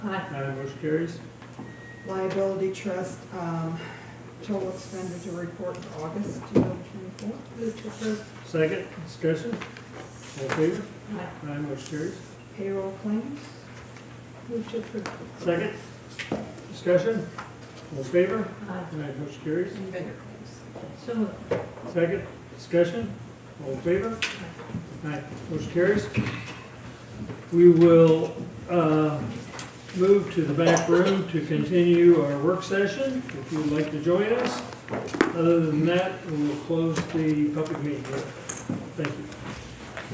Aye. Aye, motion carries. Liability trust, um, total expenditure report for August two thousand twenty-four. Move to approve. Second, discussion, all in favor? Aye. Aye, motion carries. Payroll claims, Move to approve. Second, discussion, all in favor? Aye. Aye, motion carries. and vendor claims. So moved. Second, discussion, all in favor? Aye, motion carries. We will uh, move to the back room to continue our work session, if you would like to join us. Other than that, we will close the public meeting. Thank you.